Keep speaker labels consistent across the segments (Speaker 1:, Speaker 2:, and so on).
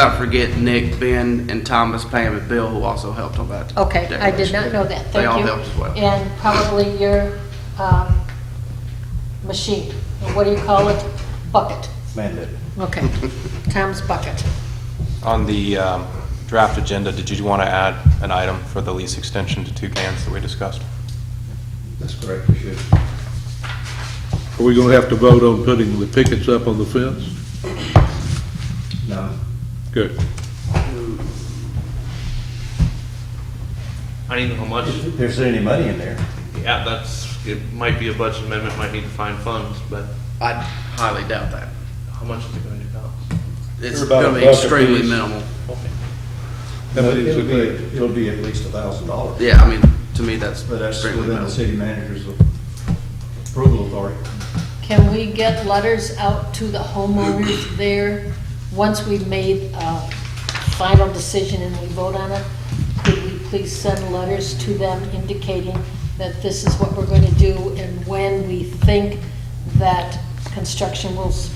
Speaker 1: Not forget Nick, Ben, and Thomas, Pam, and Bill, who also helped on that.
Speaker 2: Okay, I did
Speaker 1: decoration.
Speaker 2: not know that, thank you.
Speaker 1: They all helped as well.
Speaker 2: And probably your um, machine, or what do you call it? Bucket.
Speaker 3: Mandate.
Speaker 2: Okay, Tom's bucket.
Speaker 4: On the um, draft agenda, did you want to add an item for the lease extension to Toucans that we discussed?
Speaker 3: That's correct, we should.
Speaker 5: Are we gonna have to vote on putting the pickets up on the fence?
Speaker 3: No.
Speaker 5: Good.
Speaker 6: I don't even know how much,
Speaker 3: There's any money in there.
Speaker 6: yeah, that's, it might be a budget amendment, might need to find funds, but
Speaker 1: I highly doubt that.
Speaker 6: how much is it gonna cost?
Speaker 1: It's
Speaker 3: They're about
Speaker 1: gonna be
Speaker 3: a buck
Speaker 1: extremely
Speaker 3: apiece.
Speaker 1: minimal.
Speaker 6: Okay.
Speaker 5: How many is
Speaker 3: It'll
Speaker 5: it
Speaker 3: be,
Speaker 5: there?
Speaker 3: it'll be at least a thousand dollars.
Speaker 1: Yeah, I mean, to me, that's
Speaker 3: But that's
Speaker 1: extremely
Speaker 3: within the
Speaker 1: minimal.
Speaker 3: city manager's approval authority.
Speaker 2: Can we get letters out to the homeowners there? Once we've made a final decision and we vote on it, could we please send letters to them indicating that this is what we're going to do and when we think that construction will s-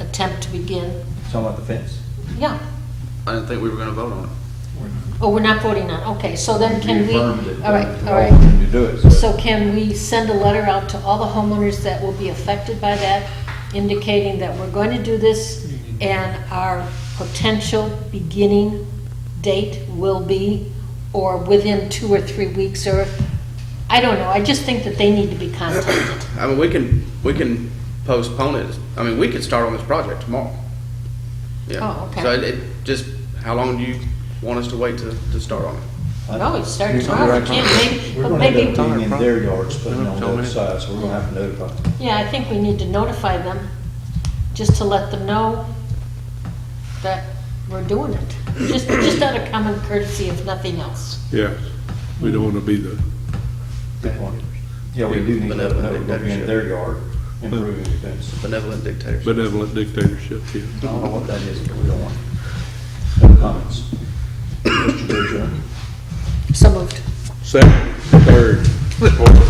Speaker 2: attempt to begin?
Speaker 3: Talking about the fence?
Speaker 2: Yeah,
Speaker 1: I didn't think we were gonna vote on it.
Speaker 2: oh, we're not voting on, okay, so then can we?
Speaker 3: affirmed it.
Speaker 2: All right, all
Speaker 3: We're
Speaker 2: right.
Speaker 3: going To do it. so-
Speaker 2: So can we send a letter out to all the homeowners that will be affected by that, indicating that we're going to do this, and our potential beginning date will be, or within two or three weeks, or, I don't know, I just think that they need to be contacted.
Speaker 1: I mean, we can, we can postpone it. I mean, we could start on this project tomorrow. Yeah.
Speaker 2: Oh, okay.
Speaker 1: So it, it, just, how long do you want us to wait to, to start on it?
Speaker 2: No, Oh, it starts
Speaker 3: You're
Speaker 2: tomorrow,
Speaker 3: right.
Speaker 2: can't maybe,
Speaker 3: We're
Speaker 2: but
Speaker 3: gonna end
Speaker 2: maybe,
Speaker 3: up being in their yards, putting on the
Speaker 1: Tell me.
Speaker 3: other side, so we're gonna have to notify them.
Speaker 2: yeah, I think we need to notify them, just to let them know that we're doing it. Just, just out of common courtesy, if nothing else.
Speaker 5: Yes. We don't wanna be the,
Speaker 3: Good point. Yeah, we do need to let them know we're gonna be in their yard, improving the fence.
Speaker 1: Benevolent dictatorship.
Speaker 5: benevolent dictatorship here.
Speaker 3: I don't know what that is, but we don't want it. No comments. Mr. Bergeron?
Speaker 2: So moved.
Speaker 5: Second, third, fourth.